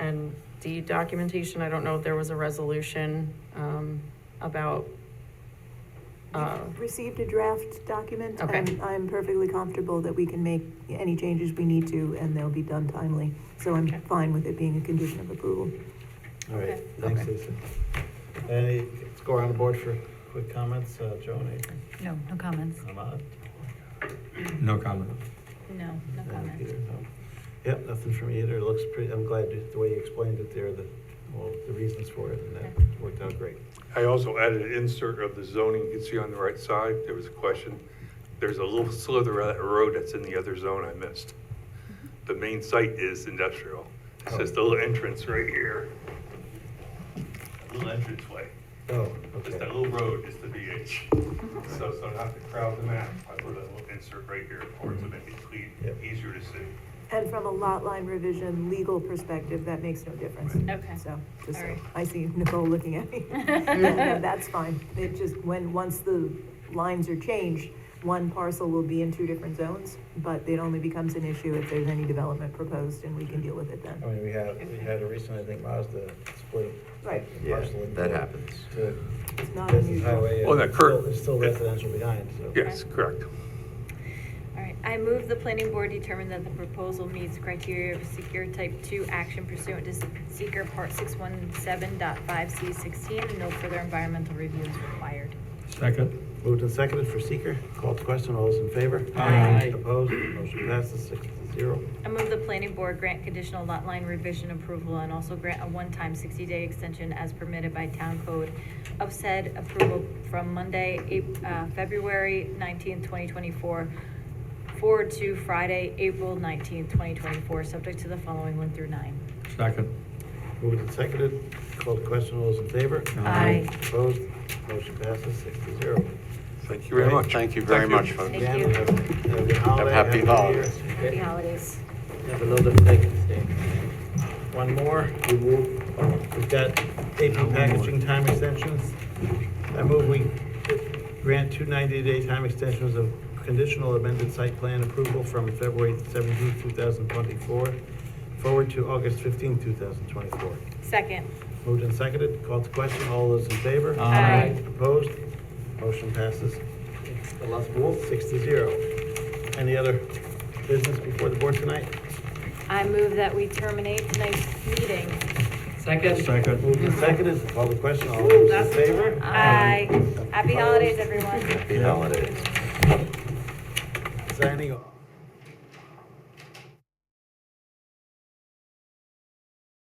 the documentation, I don't know if there was a resolution, um, about, uh, We've Received a draft document. Okay. and I'm perfectly comfortable that we can make any changes we need to, and they'll be done timely. So I'm Okay. fine with it being a condition of approval. All right, Okay. thanks, Okay. Lisa. Any, let's go around the board for quick comments. Uh, Joan, Uh, anything? No, no comments. Ahmad? No comment. No, no And Peter, no? Yep, nothing from either. It looks pretty, I'm glad the way you explained it there, the, well, the reasons for it, and that worked out great. I also added an insert of the zoning, you can see on the right side, there was a question. There's a little slither of that road that's in the other zone I missed. The main site is industrial. It's just a little entrance right here. A Little entrance way. Oh, Just that okay. little road is the DH. So, so not to crowd the map, I put a little insert right here for it to make it clean, Yep. easier to see. And from a lot line revision legal perspective, that makes no difference. Okay. So, just so, All right. I see Nicole looking at me. Yeah, no, That's fine. It just, when, once the lines are changed, one parcel will be in two different zones, but it only becomes an issue if there's any development proposed, and we can deal with it then. I mean, we had, we had a recent, I think Mazda split. Right. the Yeah, parcel in that two happens. To It's not business unusual. highway. and Oh, that curve. still- It's still residential behind, so. Yes, correct. All right, I move the planning board determine that the proposal meets criteria of seeker type two action pursuant to seeker part six one seven dot five C sixteen, and no further environmental review is required. Second? Moved and seconded for seeker. Called to question. All those in favor? Aye. Opposed? Motion passes six to zero. I move the planning board grant conditional lot line revision approval and also grant a one-time sixty-day extension as permitted by town code of said approval from Monday, Ap- uh, February nineteenth, twenty twenty-four, forward to Friday, April nineteenth, twenty twenty-four, subject to the following one through nine. Second. Moved and seconded. Called to question. All those in favor? Aye. Opposed? Motion passes six to zero. Thank you very much. Thank you very much, folks. Thank Dan, you. Have have a good holiday. a happy good holidays. year. Happy holidays. Have another Veterans Day. One more, we move, we've got AP packaging time extensions. I move we grant two 90-day time extensions of conditional amended site plan approval from February 17, 2024, forward to August 15, 2024. Second. Moved and seconded, called to question, all those in favor? Aye. Opposed? Motion passes. Six to zero. Any other business before the board tonight? I move that we terminate tonight's meeting. Second. Moved and seconded, call the question, all those in favor? Aye. Happy holidays, everyone. Happy holidays. Signing off.